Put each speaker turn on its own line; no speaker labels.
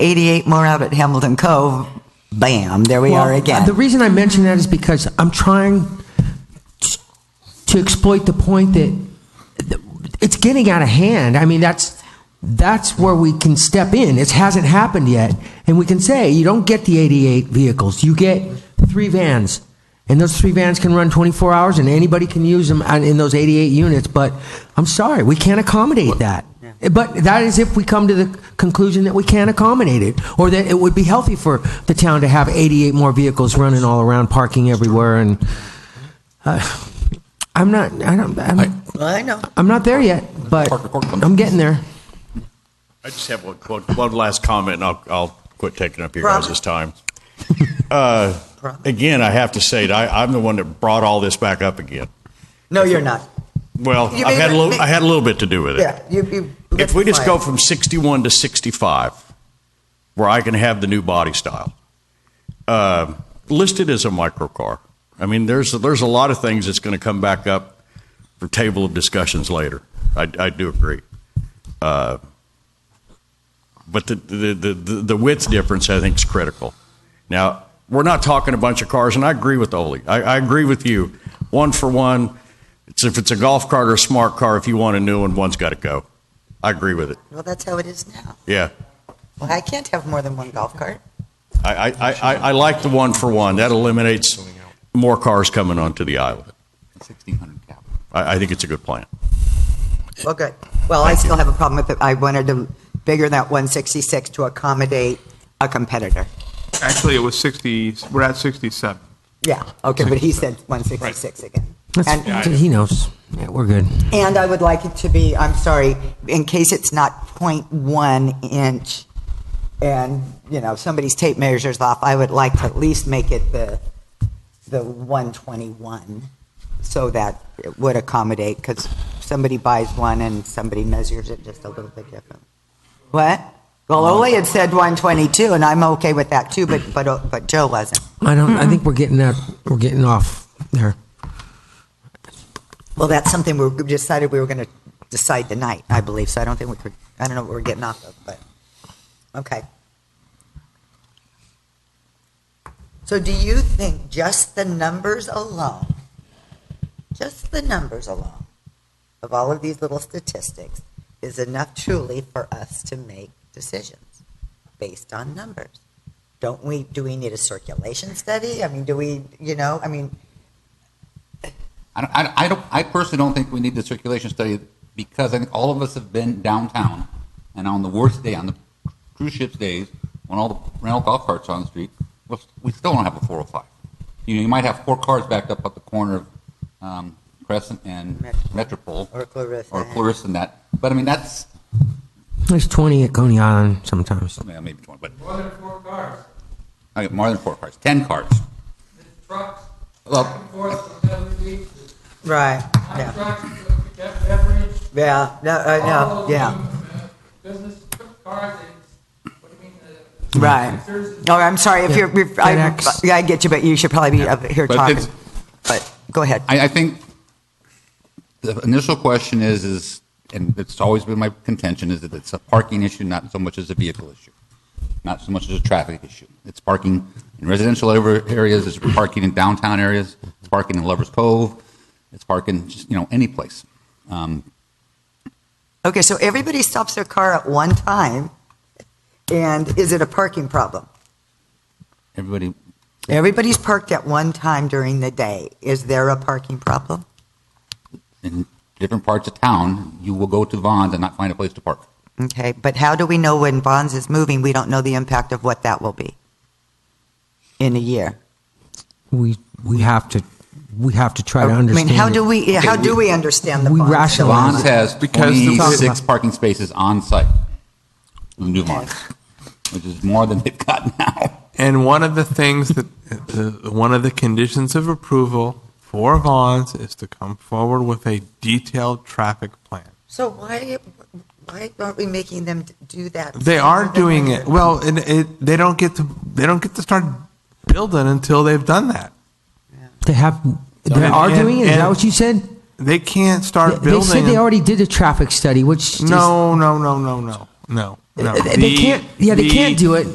88 more out at Hamilton Cove, bam, there we
Well,
are again.
The reason I mention that is because I'm trying t- to exploit the point that th- it's getting out of hand. I mean, that's that's where we can step in. It hasn't happened yet, and we can say you don't get the 88 vehicles. You get three vans, and those three vans can run 24 hours, and anybody can use them on- in those 88 units. But I'm sorry, we can't accommodate that. But that is if we come to the conclusion that we can't accommodate it, or that it would be healthy for the town to have 88 more vehicles running all around, parking everywhere, and uh, I'm not, I don't, I'm,
I know.
I'm not there yet, but I'm getting there.
I just have one, one, one last comment, and I'll, I'll quit taking up your guys' time. uh, again, I have to say, that I, I'm the one that brought all this back up again.
No, you're not.
Well,
You
I've
made
had a
it-
little, I had a little bit to do with it.
Yeah, you, you.
If we just go from 61 to 65, where I can have the new body style, uh, listed as a microcar. I mean, there's there's a lot of things that's going to come back up for table of discussions later. I, I do agree. Uh, but the, the, the, the, the width difference, I think, is critical. Now, we're not talking a bunch of cars, and I agree with Ole. I, I agree with you. One for one, it's, if it's a golf cart or a smart car, if you want a new one, one's got to go. I agree with it.
Well, that's how it is now.
Yeah.
Well, I can't have more than one golf cart.
I, I, I, I- I like the one for one. That eliminates more cars coming onto the island.
1,600 cap.
I, I think it's a good plan.
Well, good. Well, I still have a problem with it. I wanted to bigger that 166 to accommodate a competitor.
Actually, it was 60, we're at 67.
Yeah, okay, but he said 166 again. And-
uh,
That's, he knows. Yeah, we're good.
And I would like it to be, I'm sorry, in case it's not .1 inch, and, you know, somebody's tape measures off, I would like to at least make it the, the 121, so that it would accommodate, because somebody buys one and somebody measures it just a little bit different. What? Well, Ole had said 122, and I'm okay with that too, but, but, but Joe wasn't.
I don't, I think we're getting that, we're getting off there.
Well, that's something we we decided we were going to decide tonight, I believe, so I don't think we could, I don't know what we're getting off of, but, okay. So do you think just the numbers alone, just the numbers alone of all of these little statistics is enough truly for us to make decisions based on numbers? Don't we, do we need a circulation study? I mean, do we, you know, I mean,
I don't, I, I don't, I personally don't think we need the circulation study because I think all of us have been downtown and on the worst day, on the cruise ships days, when all the rental golf carts are on the street, we we still don't have a 405. You know, you might have four cars backed up at the corner of um, Crescent and
Metropole.
Metropole.
Or Clarissa.
Or Clarissa and that. But I mean, that's,
There's 20 at Coney Island sometimes.
yeah, maybe 20, but
More than four cars,
I get more than four cars, 10 cars.
trucks, back
Well,
and forth from W.D.,
right,
hot
yeah.
trucks, that beverage,
Yeah, no, uh,
all
no,
of
yeah,
them, uh, business cars, and what do you mean, uh, the
right. Oh, I'm sorry if
Yeah,
you're, if I,
FedEx.
yeah, I get you, but you should probably be up here
But
talking.
it's-
But go ahead.
I, I think the initial question is, is, and it's always been my contention, is that it's a parking issue, not so much as a vehicle issue, not so much as a traffic issue. It's parking in residential over- areas, it's parking in downtown areas, it's parking in Lover's Cove, it's parking, just, you know, any place. Um,
Okay, so everybody stops their car at one time, and is it a parking problem?
Everybody,
Everybody's parked at one time during the day. Is there a parking problem?
in different parts of town, you will go to Vons and not find a place to park.
Okay, but how do we know when Bonds is moving? We don't know the impact of what that will be in a year.
We, we have to, we have to try to
I mean,
understand.
how
it.
do we, yeah, how do we understand the
we
Bonds?
rationalize
Vons has
Because the-
26 parking spaces on site, the new Vons, which is more than they've got now.
And one of the things that, uh, one of the conditions of approval for Vons is to come forward with a detailed traffic plan.
So why, why aren't we making them do that?
They are doing it, well, and it, they don't get to, they don't get to start building until they've done that.
They have, they
And-
are doing it? Is that
and-
what you said?
They can't start
They
building.
said they already did a traffic study, which is-
No, no, no, no, no, no. No,
They
the-
can't, yeah, they
the-
can't do it